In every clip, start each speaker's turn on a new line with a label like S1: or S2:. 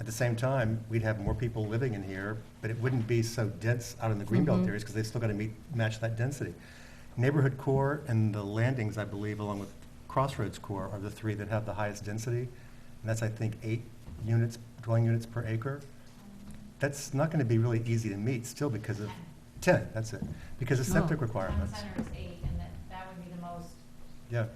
S1: At the same time, we'd have more people living in here, but it wouldn't be so dense out in the greenbelt areas because they still got to meet, match that density. Neighborhood core and the landings, I believe, along with Crossroads core are the three that have the highest density. And that's, I think, eight units, dwelling units per acre. That's not going to be really easy to meet still because of, ten, that's it, because of
S2: Oh.
S1: septic
S3: Town
S1: requirements.
S3: center is eight, and that, that would be the most,
S1: Yeah,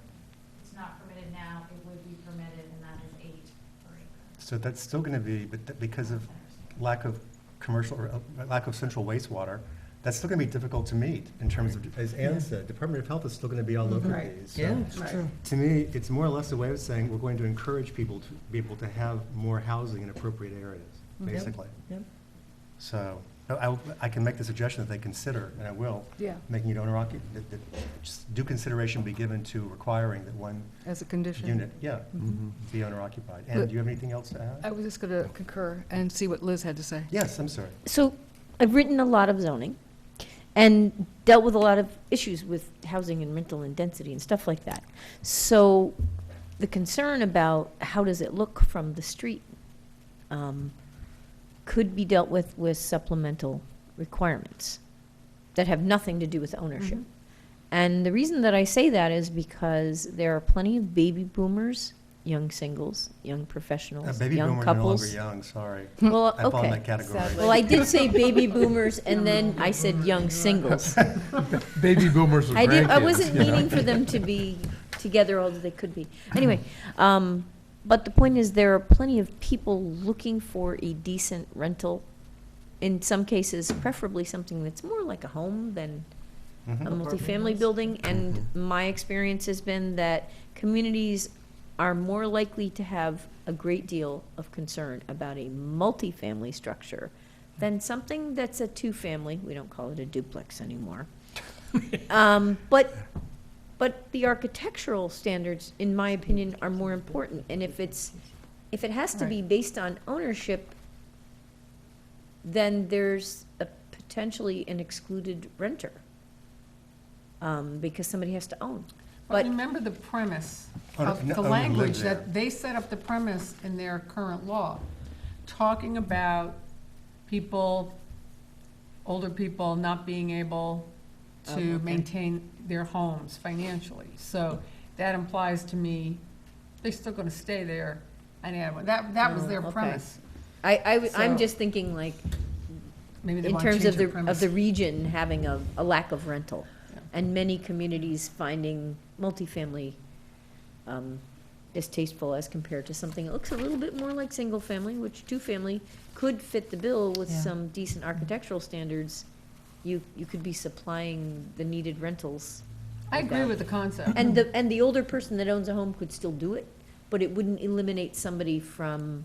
S3: it's not permitted now, it would be permitted, and that is eight per acre.
S1: so that's still going to be, but th- because of
S3: Town centers.
S1: lack of commercial, or uh, lack of central wastewater, that's still going to be difficult to meet in terms of, as Ann said, Department of Health is still going to be all over
S4: Right.
S1: these. so-
S2: Yeah, it's
S4: Right.
S2: true.
S1: To me, it's more or less a way of saying we're going to encourage people to be able to have more housing in appropriate areas,
S2: Yep.
S1: basically.
S2: Yep.
S1: So I, I can make the suggestion that they consider, and I will,
S4: Yeah,
S1: making it owner occupied, that, that just due consideration be given to requiring that one
S4: as a condition.
S1: unit, yeah,
S2: Mhm.
S1: be owner occupied. And do you have anything else to
S4: I
S1: add?
S4: was just going to concur and see what Liz had to say.
S1: Yes, I'm sorry.
S5: So I've written a lot of zoning and dealt with a lot of issues with housing and rental and density and stuff like that. So the concern about how does it look from the street um, could be dealt with with supplemental requirements that have nothing to do with ownership.
S4: Mhm.
S1: Mm-hmm.
S5: And the reason that I say that is because there are plenty of baby boomers, young singles, young
S1: Uh,
S5: professionals,
S1: Baby
S5: young
S1: boomers are no longer
S5: couples.
S1: young, sorry.
S5: Well,
S1: I fall in
S5: okay.
S1: that category. Mm-hmm.
S4: Sadly.
S5: Well, I did say baby boomers, and then I said young singles.
S6: Baby boomers with
S5: I did, I
S6: grandkids,
S5: wasn't
S6: you know.
S5: meaning for them to be together, although they could be. Anyway, um, but the point is, there are plenty of people looking for a decent rental, in some cases, preferably something that's more like a home than a
S1: Mhm.
S5: multifamily building, and my experience has been that communities are more likely to have a great deal of concern about a multifamily structure than something that's a two-family, we don't call it a duplex anymore. Um, but, but the architectural standards, in my opinion, are more important, and if it's, if it has to be based on ownership, then there's a potentially an excluded renter um, because somebody has to own.
S2: But
S5: But,
S2: remember the premise
S1: Oh, no,
S2: of
S1: no,
S2: the
S1: own and live
S2: language
S1: there.
S2: that they set up the premise in their current law, talking about people, older people not being able
S5: Oh,
S2: to
S5: okay.
S2: maintain their homes financially. So that implies to me, they're still going to stay there and add one. That, that was
S5: Oh,
S2: their
S5: okay.
S2: premise.
S5: I, I, w- I'm
S2: So-
S5: just thinking like,
S2: Maybe they
S5: in
S2: want to
S5: terms
S2: change
S5: of
S2: their
S5: the, of
S2: premise.
S5: the region having a, a lack of rental.
S2: Yeah.
S5: And many communities finding multifamily um, distasteful as compared to something that looks a little bit more like single-family, which two-family could fit the bill with
S2: Yeah.
S5: some decent architectural standards. You, you could be supplying the needed rentals.
S2: I agree with the concept.
S5: And the, and the older person that owns a home could still do it, but it wouldn't eliminate somebody from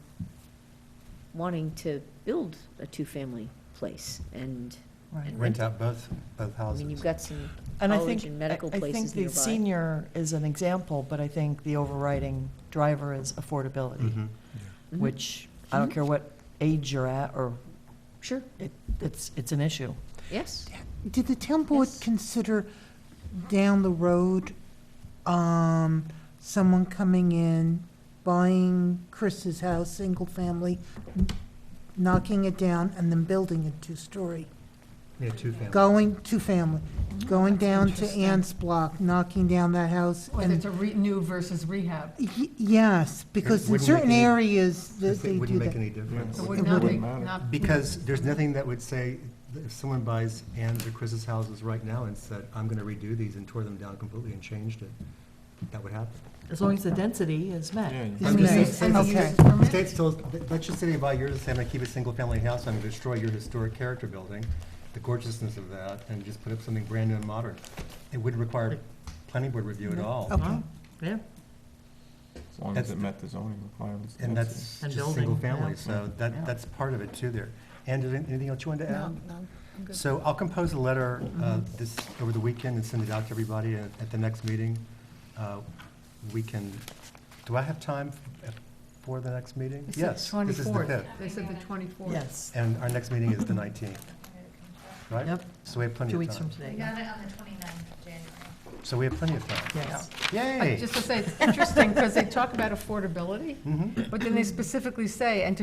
S5: wanting to build a two-family place and.
S7: Right.
S5: and
S1: Rent
S5: it.
S1: out both, both
S5: Um, I
S1: houses.
S5: mean, you've got some
S7: And I
S5: college
S7: think,
S5: and
S7: I
S5: medical
S7: I think
S5: places
S7: the
S5: nearby.
S7: senior is an example, but I think the overriding driver is affordability,
S1: Mhm.
S5: Mhm.
S7: which, I don't
S5: Mhm.
S7: care what age you're at, or
S5: Sure,
S7: it, it's, it's an issue.
S5: yes.
S8: Did the town board
S5: Yes.
S8: consider down the road, um, someone coming in, buying Chris's house, single family, knocking it down and then building a two-story?
S1: Yeah, two families.
S8: Going, two-family, going down to
S2: interesting.
S8: Ann's block, knocking down that house
S2: Whether it's
S8: and,
S2: a re- new versus rehab.
S8: Y- yes, because in
S1: wouldn't make
S8: certain
S1: any-
S8: areas that they
S1: It
S8: do
S1: wouldn't make
S8: that.
S1: any difference.
S2: It
S6: It
S2: would not be,
S6: wouldn't matter.
S2: not.
S1: Because there's nothing that would say, that if someone buys Ann's or Chris's houses right now and said, I'm going to redo these and tore them down completely and changed it, that would happen.
S7: As long as the density is met.
S6: Yeah, yeah.
S1: I'm
S2: And
S1: just
S2: the-
S1: saying-
S2: and the
S8: okay.
S2: use permit?
S1: The state still, let's just say you buy yours and say, I'm going to keep a single-family house, I'm going to destroy your historic character building, the gorgeousness of that, and just put up something brand new and modern. It wouldn't require planning board review at all.
S8: Okay.
S7: Yeah.
S6: As long
S1: That's
S6: as it
S1: the-
S6: met the zoning requirements.
S1: And that's
S7: And
S1: just
S7: building,
S1: single family,
S7: yeah.
S1: so that,
S7: Yeah.
S1: that's part of it too there. And is there anything else you wanted to add?
S4: no, I'm good.
S1: So I'll compose a letter uh, this, over the weekend and send it out to everybody at at the next meeting. Uh, We can, do I have time f- for the next meeting?
S2: They said
S1: Yes, this is the
S2: 24th.
S1: fifth.
S2: They said the twenty-fourth.
S7: Yes.
S1: And our next meeting is the 19th, right?
S7: Yep.
S1: So we have plenty
S7: Two
S1: of
S7: weeks from
S1: time.
S3: We
S7: today.
S3: got it on the 29th of January.
S1: So we have plenty of time.
S7: Yes.
S1: Yay!
S2: Just to say, it's interesting, because they talk about affordability,
S1: Mhm.
S2: but then they specifically say, and to